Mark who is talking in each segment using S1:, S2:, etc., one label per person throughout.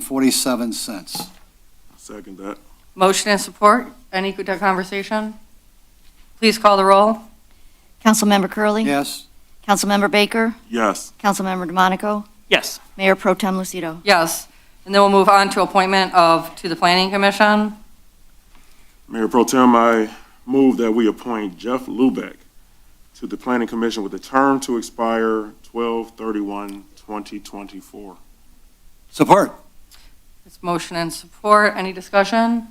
S1: $107,126.47.
S2: Second that.
S3: Motion and support. Any good conversation? Please call the roll.
S4: Councilmember Curley,
S1: Yes?
S4: Councilmember Baker?
S2: Yes.
S4: Councilmember DeMonico?
S5: Yes.
S4: Mayor Pro Tem Lucido?
S3: Yes. And then we'll move on to appointment of, to the Planning Commission.
S2: Mayor Pro Tem, I move that we appoint Jeff Lubeck to the Planning Commission with a term to expire 12/31/2024.
S1: Support?
S3: It's motion and support. Any discussion?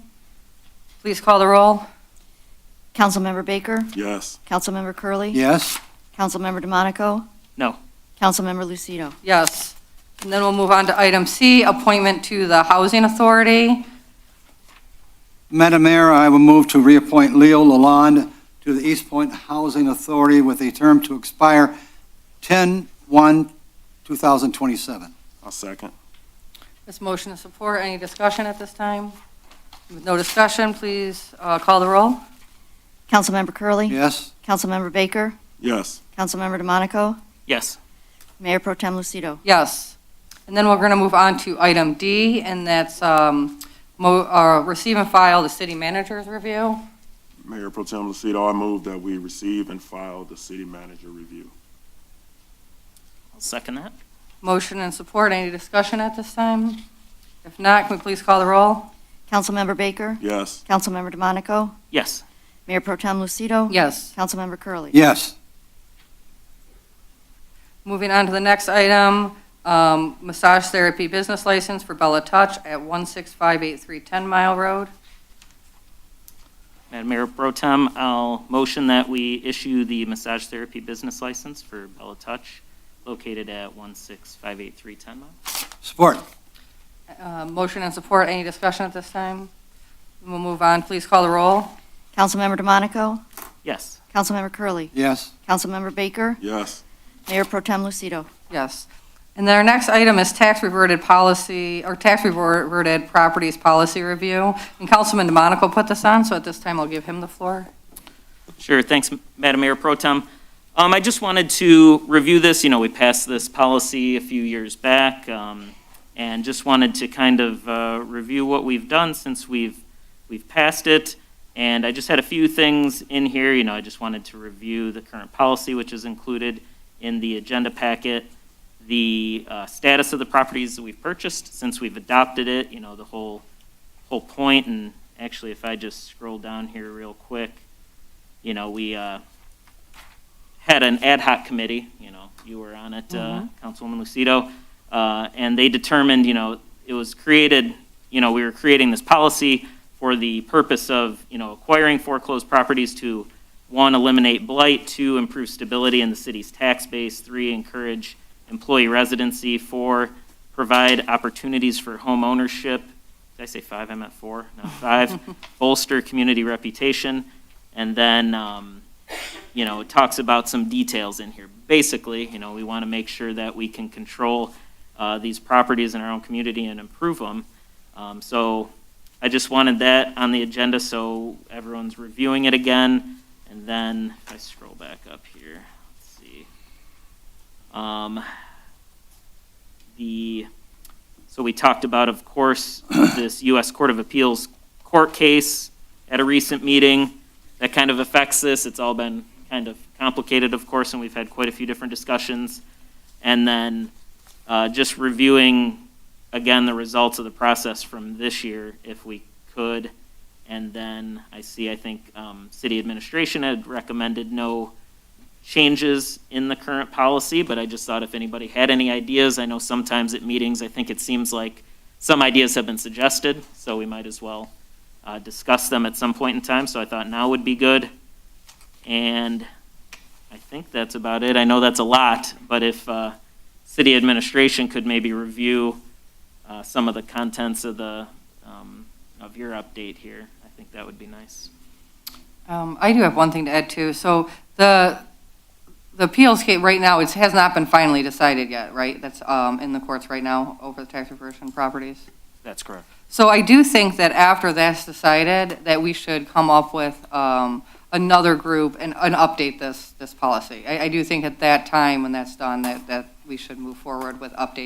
S3: Please call the roll.
S4: Councilmember Baker?
S2: Yes.
S4: Councilmember Curley,
S1: Yes?
S4: Councilmember DeMonico?
S5: No.
S4: Councilmember Lucido?
S3: Yes. And then we'll move on to item C, appointment to the Housing Authority.
S1: Madam Mayor, I will move to reappoint Leo Lalonde to the East Point Housing Authority with a term to expire 10/1/2027.
S2: I'll second.
S3: It's motion and support. Any discussion at this time? With no discussion, please uh, call the roll.
S4: Councilmember Curley,
S1: Yes?
S4: Councilmember Baker?
S2: Yes.
S4: Councilmember DeMonico?
S5: Yes.
S4: Mayor Pro Tem Lucido?
S3: Yes. And then we're going to move on to item D, and that's um, mo- uh, receive and file the city manager's review.
S2: Mayor Pro Tem Lucido, I move that we receive and file the city manager review.
S5: I'll second that.
S3: Motion and support. Any discussion at this time? If not, can we please call the roll?
S4: Councilmember Baker?
S2: Yes.
S4: Councilmember DeMonico?
S5: Yes.
S4: Mayor Pro Tem Lucido?
S3: Yes.
S4: Councilmember Curley,
S1: Yes?
S3: Moving on to the next item, um, massage therapy business license for Bella Touch at 16583 10 Mile Road.
S5: Madam Mayor Pro Tem, I'll motion that we issue the massage therapy business license for Bella Touch located at 1658310 Mile.
S1: Support?
S3: Uh, Motion and support. Any discussion at this time? We'll move on. Please call the roll.
S4: Councilmember DeMonico?
S5: Yes.
S4: Councilmember Curley,
S1: Yes?
S4: Councilmember Baker?
S2: Yes.
S4: Mayor Pro Tem Lucido?
S3: Yes. And then our next item is tax reverted policy, or tax reverted properties policy review. And Councilman DeMonico put this on, so at this time I'll give him the floor.
S5: Sure, thanks, Madam Mayor Pro Tem. Um, I just wanted to review this, you know, we passed this policy a few years back, um, and just wanted to kind of, uh, review what we've done since we've, we've passed it. And I just had a few things in here, you know, I just wanted to review the current policy, which is included in the agenda packet, the, uh, status of the properties that we've purchased since we've adopted it, you know, the whole, whole point, and actually, if I just scroll down here real quick, you know, we uh, had an ad hoc committee, you know, you were on it, uh, Councilwoman Lucido, uh, and they determined, you know, it was created, you know, we were creating this policy for the purpose of, you know, acquiring foreclosed properties to, one, eliminate blight, two, improve stability in the city's tax base, three, encourage employee residency, four, provide opportunities for home ownership, did I say five? I meant four, no, five, bolster community reputation, and then, um, you know, it talks about some details in here. Basically, you know, we want to make sure that we can control uh, these properties in our own community and improve them. Um, So I just wanted that on the agenda, so everyone's reviewing it again. And then if I scroll back up here, let's see. Um, The, so we talked about, of course, this U.S. Court of Appeals court case at a recent meeting that kind of affects this. It's all been kind of complicated, of course, and we've had quite a few different discussions. And then uh, just reviewing, again, the results of the process from this year, if we could. And then I see, I think, um, city administration had recommended no changes in the current policy, but I just thought if anybody had any ideas, I know sometimes at meetings, I think it seems like some ideas have been suggested, so we might as well uh, discuss them at some point in time, so I thought now would be good. And I think that's about it. I know that's a lot, but if uh, city administration could maybe review uh, some of the contents of the, um, of your update here, I think that would be nice.
S3: Um, I do have one thing to add too. So the, the appeals case right now, it has not been finally decided yet, right? That's um, in the courts right now over the tax reversion properties.
S5: That's correct.
S3: So I do think that after that's decided, that we should come up with um, another group and, and update this, this policy. I, I do think at that time, when that's done, that, that we should move forward with updating